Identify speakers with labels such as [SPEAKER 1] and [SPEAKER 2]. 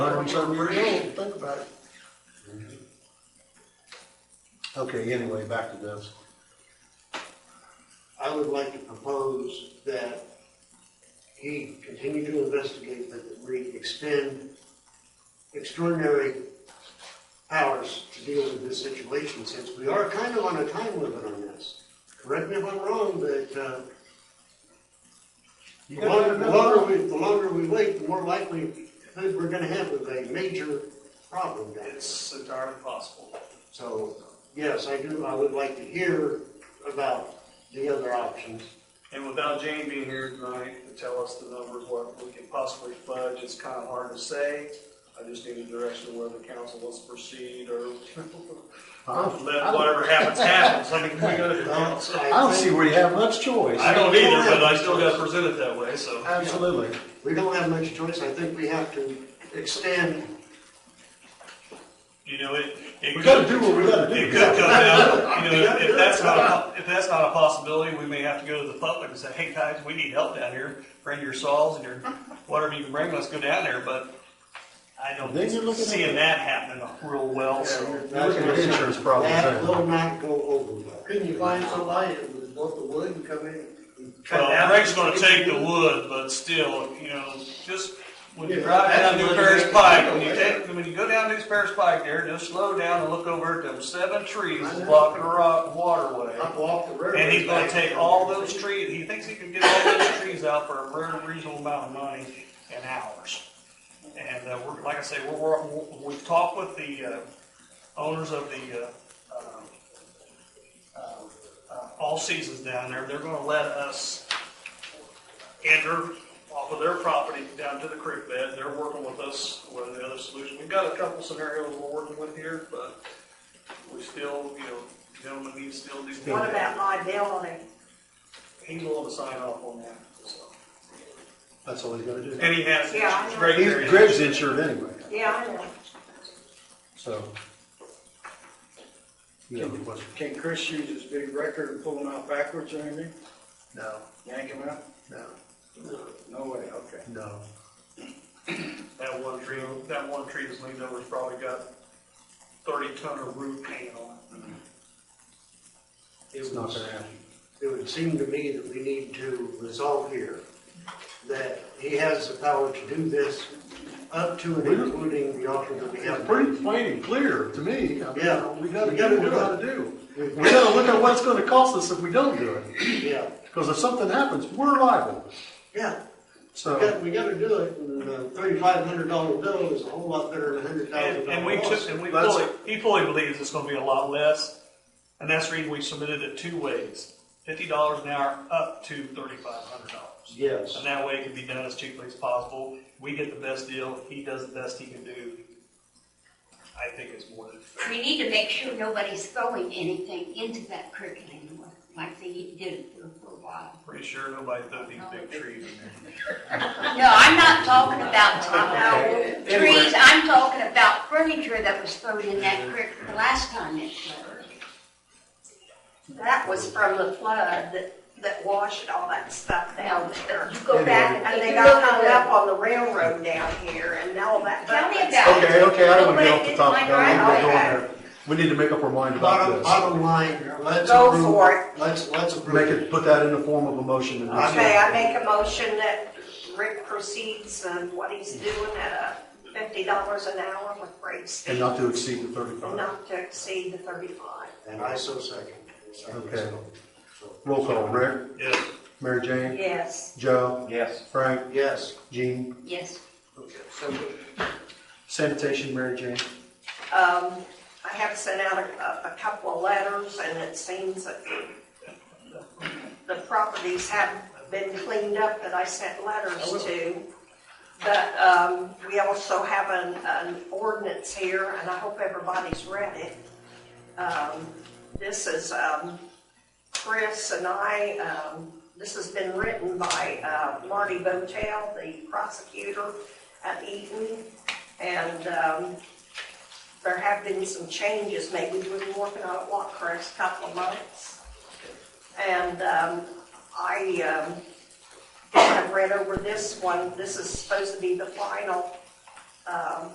[SPEAKER 1] and some years old, think about it.
[SPEAKER 2] Okay, anyway, back to this.
[SPEAKER 3] I would like to propose that he continue to investigate, but that we extend extraordinary powers to deal with this situation, since we are kind of on a time limit on this. Correct me if I'm wrong, but, uh, the longer, the longer we, the longer we wait, the more likely that we're gonna have with a major problem down there.
[SPEAKER 4] It's entirely possible.
[SPEAKER 3] So, yes, I do, I would like to hear about the other options.
[SPEAKER 4] And without Jane being here tonight to tell us the numbers, what we could possibly fudge, it's kind of hard to say. I just need a direction of where the council wants to proceed or
[SPEAKER 2] I
[SPEAKER 4] let whatever happens, happens. I mean, we go to the council.
[SPEAKER 2] I don't see where you have much choice.
[SPEAKER 4] I don't either, but I still gotta present it that way, so.
[SPEAKER 2] Absolutely.
[SPEAKER 3] We don't have much choice, I think we have to extend,
[SPEAKER 5] You know, it, it
[SPEAKER 2] We
[SPEAKER 5] could,
[SPEAKER 2] gotta do what we gotta
[SPEAKER 5] it
[SPEAKER 2] do.
[SPEAKER 5] could come down, you know, if that's not, a- if that's not a possibility, we may have to go to the public and say, hey guys, we need help down here. Bring your saws and your, whatever you can bring, let's go down there, but I don't
[SPEAKER 2] Then you're looking at-
[SPEAKER 5] see that happening real well, so.
[SPEAKER 2] You're looking at insurance problems
[SPEAKER 3] uh, that
[SPEAKER 2] there.
[SPEAKER 3] will not go over well.
[SPEAKER 1] Couldn't you find somebody that was both the wood and come in and cut
[SPEAKER 5] Well,
[SPEAKER 1] down?
[SPEAKER 5] Greg's gonna take the wood, but still, you know, just when you
[SPEAKER 1] Yeah,
[SPEAKER 5] drive
[SPEAKER 1] that's
[SPEAKER 5] down New
[SPEAKER 1] what
[SPEAKER 5] Paris
[SPEAKER 1] it-
[SPEAKER 5] Pike, when you take, when you go down New Paris Pike there, just slow down and look over at them seven trees
[SPEAKER 1] I know.
[SPEAKER 5] blocking the rock waterway.
[SPEAKER 1] I walked the river.
[SPEAKER 5] And he's gonna take all those trees, he thinks he can get all those trees out for a very reasonable amount of money in hours. And, uh, we're, like I say, we're, we're, we've talked with the, uh, owners of the, uh, um, uh, All Seasons down there, they're gonna let us enter off of their property down to the creek bed, they're working with us, with the other solution, we've got a couple scenarios we're working with here, but we still, you know, gentlemen, we still do.
[SPEAKER 6] What about my building?
[SPEAKER 5] He's willing to sign off on that, so.
[SPEAKER 2] That's all he's gotta do.
[SPEAKER 5] And he has,
[SPEAKER 6] Yeah, I know.
[SPEAKER 5] Greg
[SPEAKER 2] He's,
[SPEAKER 5] Perry.
[SPEAKER 2] Greg's insured anyway,
[SPEAKER 6] Yeah, I know.
[SPEAKER 2] so. You know, it wasn't-
[SPEAKER 7] Can Chris use his big record and pull them out backwards or anything?
[SPEAKER 2] no,
[SPEAKER 7] Yank them out?
[SPEAKER 2] no,
[SPEAKER 7] No way, okay.
[SPEAKER 2] no.
[SPEAKER 5] that one tree, that one tree that's leaned over's probably got thirty ton of root paint on it.
[SPEAKER 3] It
[SPEAKER 2] It's not
[SPEAKER 3] would,
[SPEAKER 2] gonna happen.
[SPEAKER 3] it would seem to me that we need to resolve here, that he has the power to do this up to and including the offer that we
[SPEAKER 2] It's
[SPEAKER 3] have.
[SPEAKER 2] pretty plain and clear to me. I mean,
[SPEAKER 3] Yeah.
[SPEAKER 2] We gotta
[SPEAKER 3] We
[SPEAKER 2] do
[SPEAKER 3] gotta
[SPEAKER 2] what we
[SPEAKER 3] do it.
[SPEAKER 2] gotta do.
[SPEAKER 3] We-
[SPEAKER 2] We gotta look at what it's gonna cost us if we don't do it,
[SPEAKER 3] Yeah,
[SPEAKER 2] because if something happens, we're liable.
[SPEAKER 3] yeah. We
[SPEAKER 2] So,
[SPEAKER 3] got, we gotta do it, and a thirty-five hundred dollar bill is a whole lot better than a hundred thousand
[SPEAKER 5] And,
[SPEAKER 3] dollar
[SPEAKER 5] and we took, and we
[SPEAKER 2] That's-
[SPEAKER 5] fully, he fully believes it's gonna be a lot less, and that's the reason we submitted it two ways. Fifty dollars an hour up to thirty-five hundred dollars.
[SPEAKER 3] Yes.
[SPEAKER 5] And that way it can be done as cheaply as possible. We get the best deal, he does the best he can do. I think it's more than fair.
[SPEAKER 8] We need to make sure nobody's throwing anything into that creek anymore, like they did for a while.
[SPEAKER 5] Pretty sure nobody threw these big trees in there.
[SPEAKER 8] No, I'm not talking about uh, trees, I'm talking about furniture that was thrown in that creek the last time it flooded.
[SPEAKER 6] That was from the flood that, that washed all that stuff down there.
[SPEAKER 8] You go back
[SPEAKER 6] And
[SPEAKER 8] and
[SPEAKER 6] they
[SPEAKER 8] they
[SPEAKER 6] got hung up
[SPEAKER 8] up.
[SPEAKER 6] on the railroad down here and all that.
[SPEAKER 8] Tell me
[SPEAKER 6] happened.
[SPEAKER 8] about
[SPEAKER 2] okay,
[SPEAKER 8] it.
[SPEAKER 2] okay, I don't wanna get off the topic.
[SPEAKER 8] Nobody did
[SPEAKER 2] I don't wanna
[SPEAKER 8] mine
[SPEAKER 2] go
[SPEAKER 8] right.
[SPEAKER 2] on there. We need to make up our mind about
[SPEAKER 3] Bottom,
[SPEAKER 2] this.
[SPEAKER 3] bottom line, let's.
[SPEAKER 6] Go
[SPEAKER 3] approve-
[SPEAKER 6] for it.
[SPEAKER 3] Let's, let's
[SPEAKER 2] Make it,
[SPEAKER 3] approve it.
[SPEAKER 2] put that in the form of a motion. and-
[SPEAKER 6] Okay, I make a motion that Rick proceeds on what he's doing at uh, fifty dollars an hour with rates
[SPEAKER 2] And not to exceed the thirty-five.
[SPEAKER 6] not to exceed the thirty-five.
[SPEAKER 3] And I so second. Second.
[SPEAKER 2] Okay. Roll call, Rick,
[SPEAKER 5] Yeah.
[SPEAKER 2] Mary Jane,
[SPEAKER 6] Yes.
[SPEAKER 2] Joe,
[SPEAKER 7] Yes.
[SPEAKER 2] Frank,
[SPEAKER 3] Yes,
[SPEAKER 2] Jean,
[SPEAKER 8] Yes,
[SPEAKER 2] sanitation, Mary Jane.
[SPEAKER 6] Um, I have sent out a, a couple of letters, and it seems that the properties haven't been cleaned up that I sent letters to. But, um, we also have an, an ordinance here, and I hope everybody's read it. Um, this is, um, Chris and I, um, this has been written by, uh, Marty Botel, the prosecutor at Eaton. And, um, there have been some changes, maybe we've been working on it, what, Chris, couple of months? And um, I um, have read over this one, this is supposed to be the final um,